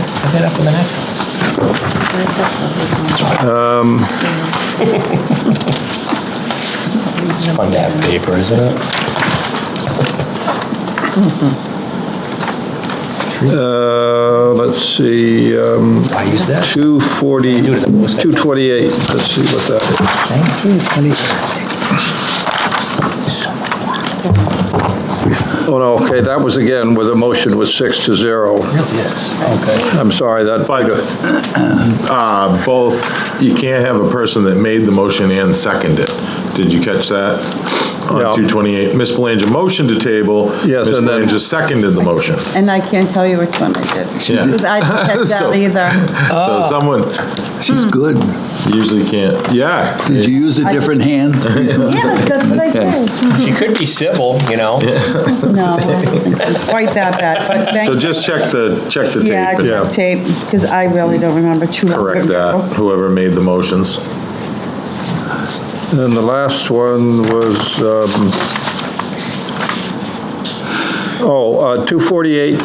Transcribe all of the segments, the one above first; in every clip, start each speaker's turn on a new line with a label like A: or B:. A: it up for the next one. Um, It's fun to have paper, isn't it?
B: Uh, let's see, um,
A: I use that.
B: 240, 228, let's see what that
A: Thank you, twenty-six.
B: is. Oh, no, okay, that was again with a motion was six to zero.
A: Yes,
B: I'm sorry, that,
C: But uh, both, you can't have a person that made the motion and seconded it. Did you catch that?
B: Yeah.
C: On 228, Ms. Belanger motioned to table.
B: Yes,
C: Ms.
B: and then-
C: Belanger seconded the motion.
D: And I can't tell you which one I did.
C: Yeah.
D: Because I didn't check
C: So-
D: that either.
C: So someone
E: She's good.
C: usually can't, yeah.
E: Did you use a different hand?
D: Yes, that's what I did.
A: okay. She could be civil, you know?
D: No, I don't think it was quite that bad, but thank.
C: So just check the, check the
D: Yeah,
C: tape
D: I
C: and
D: checked tape, because I really don't remember too. much.
C: correct uh, that, whoever made the motions.
B: and the last one was, um, oh, uh, 248.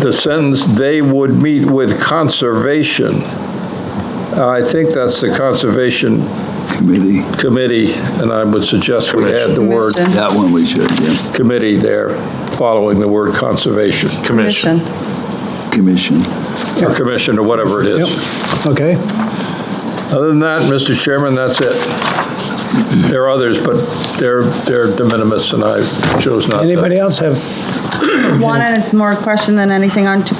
B: The sentence, "They would meet with conservation." Uh, I think that's the Conservation
E: Committee,
B: Committee, and I would suggest we add the word
D: Commission.
E: that one we should, yeah.
B: committee there, following the word conservation,
C: Commission.
E: Commission.
B: or commission, or whatever it is.
F: Okay,
B: Other than that, Mr. Chairman, that's it. There are others, but they're, they're de minimis, and I chose not to.
F: anybody else have,
D: One, and it's more a question than anything on t-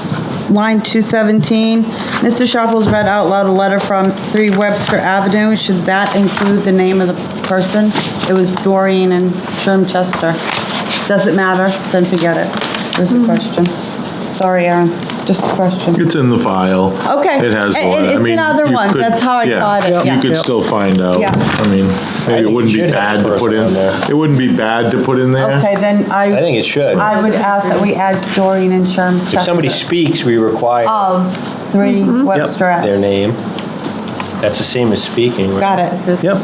D: line 217. Mr. Sharples read out loud a letter from 3 Webster Avenue. Should that include the name of the person? It was Doreen and Sherm Chester. Does it matter? Then forget it. Was the question. Sorry, Aaron, just a question.
C: It's in the file.
D: Okay.
C: It has
D: It-
C: one.
D: it's
C: I
D: in
C: mean,
D: other
C: you
D: ones.
C: could-
D: That's how I
C: yeah,
D: caught it, yeah.
C: You could still find out.
D: Yeah.
C: I mean, maybe
A: think
C: it wouldn't
A: you
C: be
A: should have
C: bad
A: the
C: to
A: first
C: put
A: one
C: in,
A: there.
C: it wouldn't be bad to put in there.
D: Okay, then
A: I
D: I,
A: think it should.
D: I would ask that we add Doreen and Sherm Chester.
A: If somebody speaks, we require
D: Of 3 Webster
A: their
D: Ave.
A: name. That's the same as speaking. right?
D: Got it.
F: yep,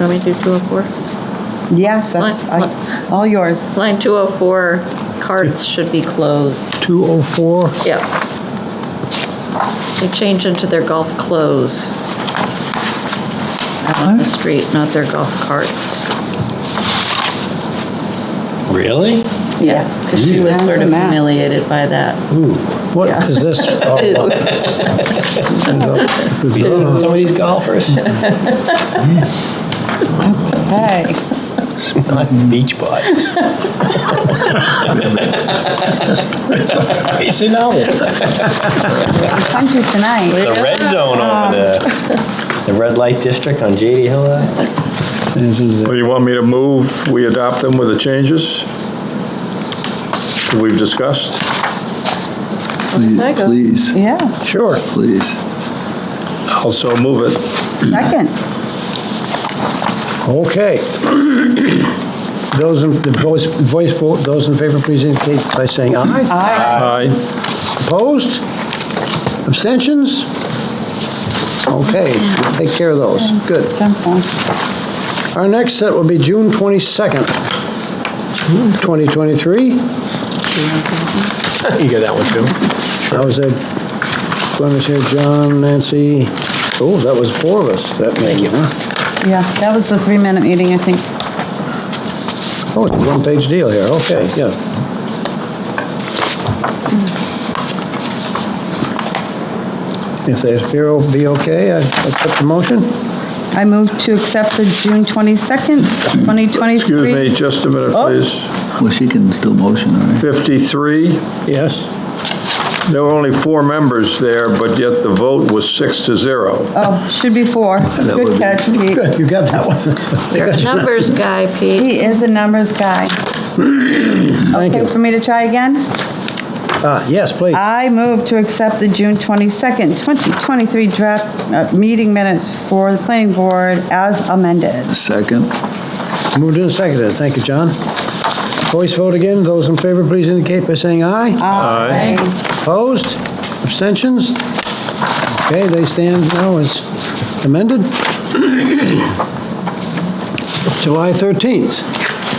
G: Let me do 204.
D: Yes, that's, I- all yours.
G: Line 204, carts should be closed.
F: 204,
G: Yep. They change into their golf clothes. Out on the street, not their golf carts.
A: Really?
G: Yeah, because she was sort of humiliated by that.
F: what is this? Oh,
A: Some of these golfers,
D: Hey.
A: not beach bodies. You see now, the
D: Country tonight.
A: red zone over there, the red light district on JD Hill. uh,
B: Well, you want me to move, we adopt them with the changes that we've discussed?
G: I go?
E: Please,
D: Yeah,
F: Sure,
E: please.
B: I'll so move it.
D: second.
F: okay. Those in, the voice, voice vote, those in favor, please indicate by saying aye.
D: Aye.
B: Aye.
F: Opposed? Abstentions? Okay, we'll take care of those, good.
D: Jump on.
F: Our next set will be June 22nd, 2023.
A: You got that one too?
F: I was at, let me see, John, Nancy, oh, that was four of us that meeting, huh?
D: Yeah, that was the three-minute meeting, I think.
F: Oh, it's a one-page deal here, okay, yeah. If they appear will be okay, I accept the motion.
D: I move to accept the June 22nd, 2023.
B: Excuse me, just a minute,
A: Oh.
B: please.
E: Well, she can still motion, all right?
B: 53,
F: Yes.
B: there were only four members there, but yet the vote was six to zero.
D: Oh, should be four.
E: would
D: Good
E: be-
D: catch, Pete.
F: Good, you got that one.
G: Numbers guy, Pete.
D: He is a numbers guy.
F: Thank
D: Okay,
F: you.
D: for me to try again?
F: Ah, yes, please.
D: I move to accept the June 22nd, 2023 draft uh, meeting minutes for the planning board as amended.
E: Second,
F: Moved and seconded, thank you, John. Voice vote again, those in favor, please indicate by saying aye.
D: Aye.
F: Opposed? Abstentions? Okay, they stand now as amended. July 13th.